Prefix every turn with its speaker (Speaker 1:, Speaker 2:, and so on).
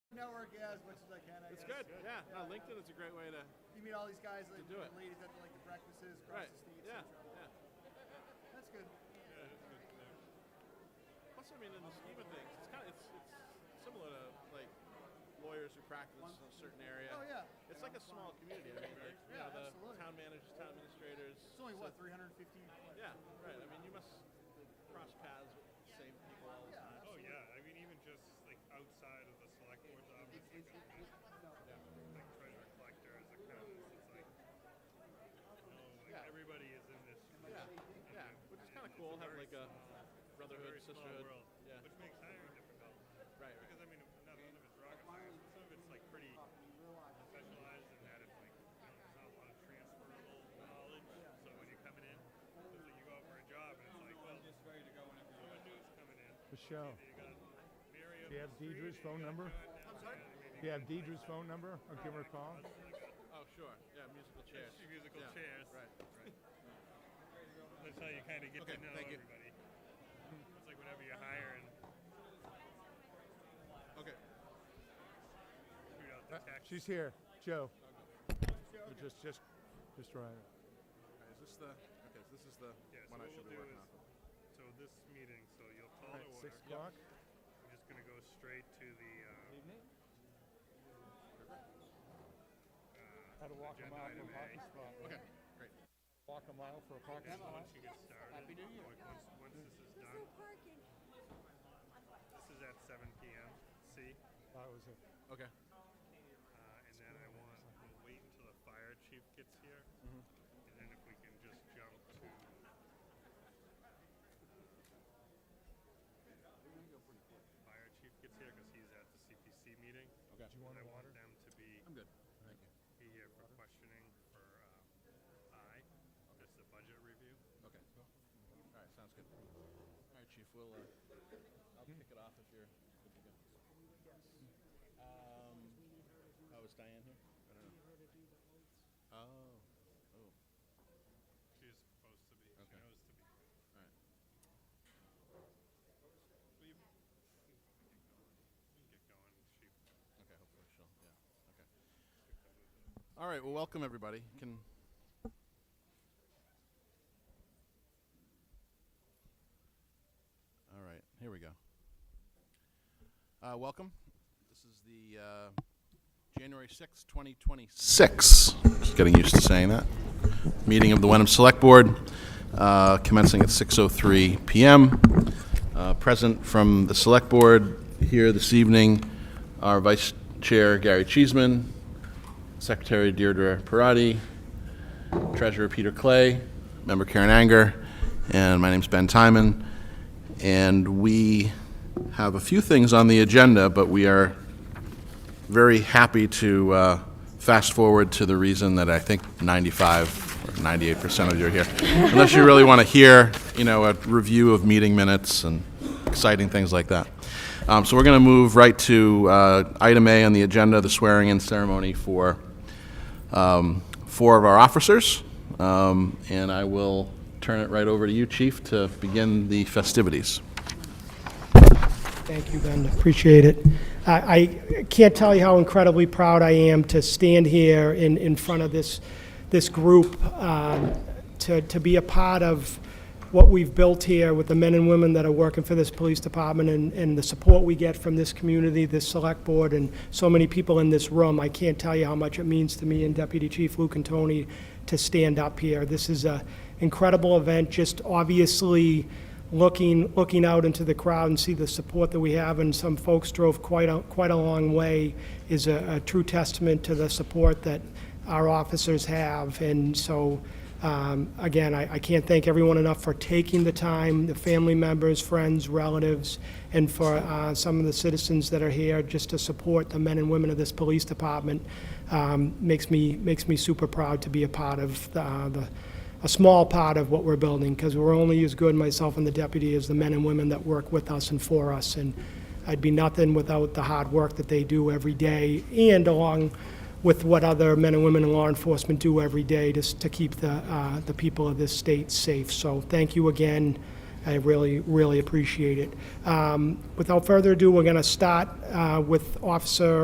Speaker 1: out as much as I can. I
Speaker 2: It's
Speaker 1: guess.
Speaker 2: good. Yeah. No, LinkedIn is a great way to.
Speaker 1: You meet all these guys, like
Speaker 2: do it.
Speaker 1: ladies at the, like the breakfasts across
Speaker 2: Right.
Speaker 1: the states.
Speaker 2: Yeah.
Speaker 1: and
Speaker 2: Yeah.
Speaker 1: stuff. that's good.
Speaker 2: Plus, I mean, in the scheme of things, it's kind of it's, it's similar to like lawyers who practice in a certain area.
Speaker 1: Oh, yeah.
Speaker 2: It's like a small community. I mean, like, you
Speaker 1: Yeah,
Speaker 2: know, the
Speaker 1: absolutely.
Speaker 2: town managers, town administrators.
Speaker 1: It's only what 350. what?
Speaker 2: Yeah, right. I mean, you must cross paths with the same people all the
Speaker 1: Yeah,
Speaker 2: time.
Speaker 3: Oh
Speaker 1: absolutely.
Speaker 3: yeah, I mean even just like outside of the select board's office, like, like treasure collectors, accountants, it's like, you know, like
Speaker 2: Yeah.
Speaker 3: everybody is in this.
Speaker 2: Yeah, yeah, which is kind of cool. Have like a brotherhood,
Speaker 3: very small
Speaker 2: sisterhood.
Speaker 3: world,
Speaker 2: Yeah,
Speaker 3: which makes hiring difficult.
Speaker 2: right, right.
Speaker 3: Because I mean, not none of it's rocket science. but Some of it's like pretty specialized in that it's like you know, there's not a lot of transferable knowledge. So when you're coming in, it's like you go out for a job and it's like, well,
Speaker 4: I'm just ready to go whenever you
Speaker 3: someone new's coming in.
Speaker 5: Michelle,
Speaker 3: You got Miriam.
Speaker 5: Do you have
Speaker 3: Street,
Speaker 5: Deidre's
Speaker 3: you
Speaker 5: phone
Speaker 3: got
Speaker 5: number?
Speaker 3: John Down, you got-
Speaker 5: do you have Deidre's phone number? I'll give her a call.
Speaker 2: Oh, sure. Yeah, musical chairs.
Speaker 3: Yes, musical
Speaker 2: Yeah,
Speaker 3: chairs.
Speaker 2: Right, right.
Speaker 3: That's how you kind of get
Speaker 2: Okay,
Speaker 3: to know
Speaker 2: thank you.
Speaker 3: everybody. It's like whenever you're hiring,
Speaker 2: Okay.
Speaker 3: shoot out the
Speaker 5: Uh,
Speaker 3: text.
Speaker 5: She's here, Joe. Just, just, just right.
Speaker 2: Is this the? Okay, so this is the
Speaker 3: yeah, so
Speaker 2: one I
Speaker 3: what
Speaker 2: should
Speaker 3: we'll
Speaker 2: be
Speaker 3: do
Speaker 2: working
Speaker 3: is,
Speaker 2: on.
Speaker 3: so this meeting, so you'll call
Speaker 5: Right,
Speaker 3: to order.
Speaker 5: six o'clock.
Speaker 3: I'm just gonna go straight to the uh,
Speaker 4: evening.
Speaker 5: How to
Speaker 3: walk a uh, Agenda mile from a item A. parking
Speaker 5: spot.
Speaker 2: Okay, great.
Speaker 5: Walk a mile for a
Speaker 3: uh,
Speaker 5: parking
Speaker 3: so once you get started.
Speaker 4: Happy New Year.
Speaker 3: like, Once, once this is
Speaker 6: There's no
Speaker 3: done,
Speaker 6: parking.
Speaker 3: this is at 7 p.m. See,
Speaker 5: That was it.
Speaker 2: Okay.
Speaker 3: uh, and then I want we'll wait until the fire chief gets here,
Speaker 2: Mm-hmm.
Speaker 3: and then if we can just jump to fire chief gets here because he's at the CPC meeting.
Speaker 2: Okay.
Speaker 5: Do you want
Speaker 3: I
Speaker 5: a
Speaker 3: want
Speaker 5: water?
Speaker 3: them to be,
Speaker 2: I'm good. Thank you.
Speaker 3: be here for questioning for um, I. That's the budget review.
Speaker 2: Okay. All right, sounds good. Hmm. All right, Chief, we'll, uh, I'll kick it off if you're good to go. Um, oh, is Diane here? I don't know. Oh, oh,
Speaker 3: She's supposed to be.
Speaker 2: Okay.
Speaker 3: She knows to be. Um,
Speaker 2: all right.
Speaker 3: Will you, you can get going. You can get going. She
Speaker 2: Okay, hopefully she'll, yeah, okay.
Speaker 3: picked up with it.
Speaker 2: All right, well, welcome, everybody. Can, all right, here we go. Uh, welcome. This is the, uh, January sixth, twenty twenty-six. Just getting used to saying that. Meeting of the Wenham Select Board, uh, commencing at six oh three PM. Uh, present from the Select Board here this evening, our Vice Chair Gary Cheeseman, Secretary Deirdre Parati, Treasurer Peter Clay, Member Karen Anger, and my name's Ben Timon. And we have a few things on the agenda, but we are very happy to uh, fast forward to the reason that I think 95 or 98% of you are here. Unless you really want to hear, you know, a review of meeting minutes and exciting things like that. Um, So we're going to move right to uh, item A on the agenda, the swearing-in ceremony for um, four of our officers. Um, And I will turn it right over to you, Chief, to begin the festivities.
Speaker 7: Thank you, Ben. Appreciate it. I, I can't tell you how incredibly proud I am to stand here in, in front of this, this group, um, to, to be a part of what we've built here with the men and women that are working for this police department and, and the support we get from this community, this select board, and so many people in this room. I can't tell you how much it means to me and Deputy Chief Luke and Tony to stand up here. This is a incredible event, just obviously looking, looking out into the crowd and see the support that we have, and some folks drove quite a, quite a long way, is a, a true testament to the support that our officers have. And so, um, again, I, I can't thank everyone enough for taking the time, the family members, friends, relatives, and for uh, some of the citizens that are here just to support the men and women of this police department. Um, makes me makes me super proud to be a part of the, uh, the a small part of what we're building, because we're only as good, myself and the deputy, as the men and women that work with us and for us. And I'd be nothing without the hard work that they do every day, and along with what other men and women in law enforcement do every day, just to keep the, uh, the people of this state safe. So thank you again. I really, really appreciate it. Um, Without further ado, we're going to start uh, with Officer